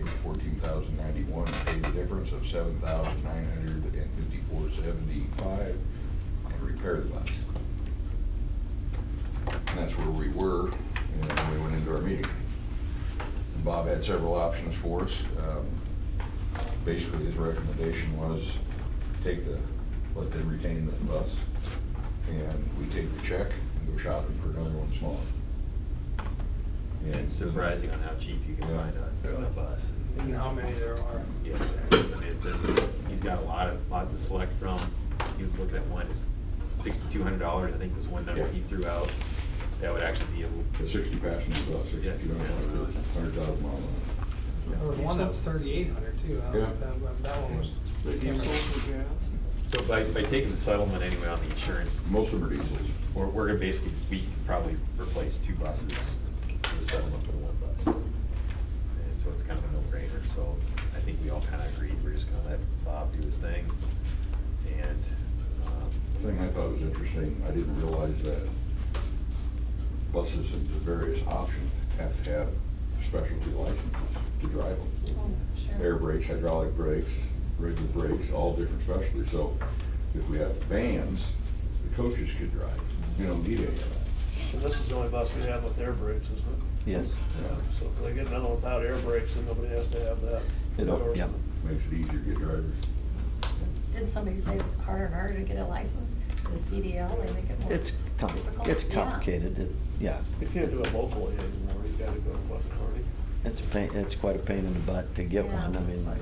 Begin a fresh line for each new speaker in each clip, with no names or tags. fourteen thousand ninety-one, pay the difference of seven thousand nine hundred and fifty-four seventy-five, and repair the bus. And that's where we were, and then we went into our meeting. And Bob had several options for us. Um, Basically, his recommendation was take the, let them retain the bus, and we take the check and go shopping for another one smaller. And- uh,
It's surprising on how cheap you can
Yeah.
find a, a bus.
And how many there are.
Yeah, I mean, there's a- he's got a lot of, lot to select from. He was looking at one, it's sixty-two hundred dollars, I think was one number he
Yeah.
threw out. That would actually be
The
a,
sixty passenger bus,
Yes.
sixty-two hundred, hundred thousand mile. an
There
hour.
was one that was thirty-eight hundred too. I don't know if
Yeah.
that, but that one was.
They
came
diesel
with-
so by, by taking the settlement anyway on the insurance,
Most of them are diesels.
we're, we're gonna basically, we could probably replace two buses in the settlement for one bus. And so it's kind of a no-brainer, so I think we all kind of agreed, we're just gonna let Bob do his thing. And, um,
The thing I thought was interesting, I didn't realize that buses and the various options have to have specialty licenses to drive them. Air brakes, hydraulic brakes, regular brakes, all different specialties. So if we have vans, the coaches could drive. You don't need any of that.
And this is the only bus we have with air brakes, isn't it?
Yes,
Yeah,
So if they get another one without air brakes, then nobody has to have that.
It'll- yeah.
Makes it easier to get drivers.
Didn't somebody say it's harder and harder to get a license, the CDL, they make it more
it's, com-
difficult?
it's
Yeah.
complicated, It- yeah.
You can't do it locally anymore, you gotta go to Buck Carney.
It's a pain, it's quite a pain in the butt to get
Yeah,
one, I
that's
mean,
what-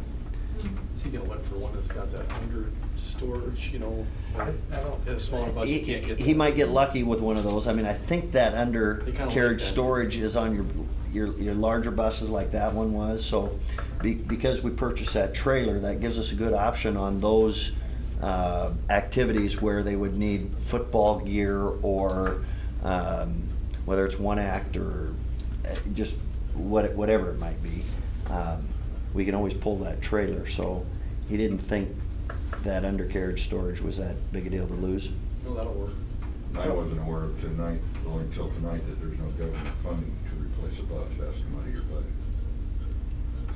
Mm.
So you get one for one that's got that under storage, you know,
I I don't.
a smaller bus,
he,
you can't get.
he might get lucky with one of those, I mean, I think that
They kinda like
undercarriage
that.
storage is on your, your, your larger buses like that one was, so be, because we purchased that trailer, that gives us a good option on those, uh, activities where they would need football gear or, um, whether it's one act or uh, just what, whatever it might be. Um, we can always pull that trailer, so he didn't think that undercarriage storage was that big a deal to lose.
No, that'll work.
I wasn't aware of tonight, only until tonight, that there's no government funding to replace a bus, that's the money you're budget.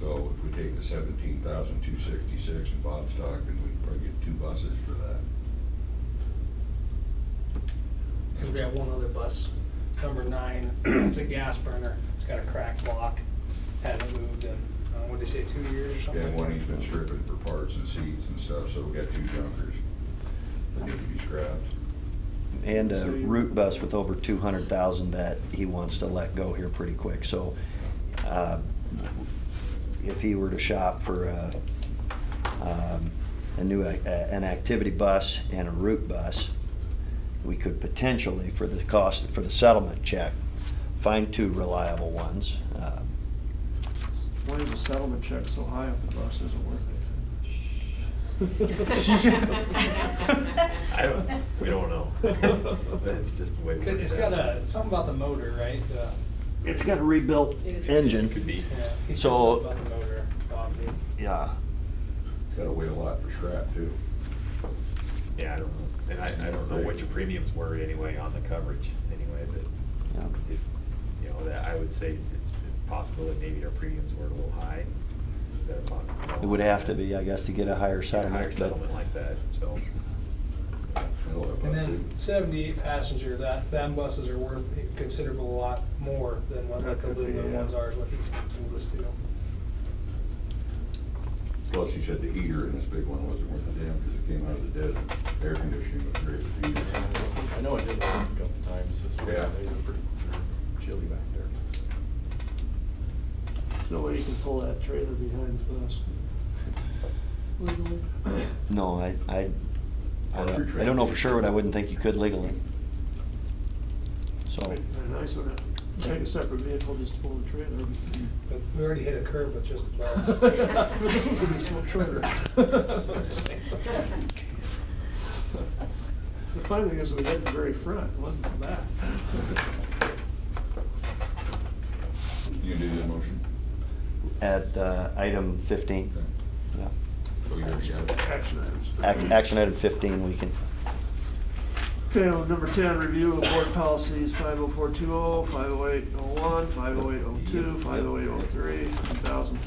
So if we take the seventeen thousand two sixty-six in Bob's talk, then we can probably get two buses for that.
Cause we have one other bus, number nine, it's a gas burner, it's got a cracked block, hasn't moved in, uh, what'd they say, two years or something?
And one he's been stripping for parts and seats and stuff, so we got two junkers that need to be scrapped.
And a
So you-
route bus with over two hundred thousand that he wants to let go here pretty quick, so, uh, if he were to shop for a, um, a new, ac- a- an activity bus and a route bus, we could potentially, for the cost, for the settlement check, find two reliable ones. Um,
Why is the settlement check so high if the bus isn't worth
I don't, we don't know. That's just the way. it
Cause it's
works
got
out.
a, something about the motor, right? The-
It's got a rebuilt engine.
Could be.
Yeah, he said
So-
something About the motor, Bob did.
Yeah,
Gotta wait a lot for scrap too.
Yeah, I don't know. And I, I don't know what your premiums were anyway on the coverage anyway, but,
yeah.
it- you know, that, I would say it's, it's possible that maybe our premiums were a little high. That upon-
It would have to be, I guess, to get a higher
Get a
settlement.
Higher
but-
settlement like that, so.
That'll help out,
And then
too.
seventy-eight passenger, that, them buses are worth a considerable lot more than what
That
the
could be,
aluminum
yeah.
ones are, is what he's told us to.
Plus, he said the heater in this big one wasn't worth a damn, cause it came out of the dead air conditioning with great heat.
I know I did that a couple times this week.
Yeah.
They were pretty chilly back there.
There's no way you can pull that trailer behind the bus.
No, I, I, I
Or your
don't, I
trade.
don't know for sure, but I wouldn't think you could legally.
Oh.
So,
It'd be nice one, take a separate vehicle, just pull the trailer.
But we already hit a curb with just the bus.
This one's a small trailer.
Mm.
The funny thing is, we hit the very front, it wasn't the back.
You do the motion?
at, uh, item fifteen,
Okay.
yeah,
So you already got it.
Action items.
Ac- action item fifteen, we can,
Okay, well, number ten, review of board policies 50420, 50801, 50802, 50803, 1000,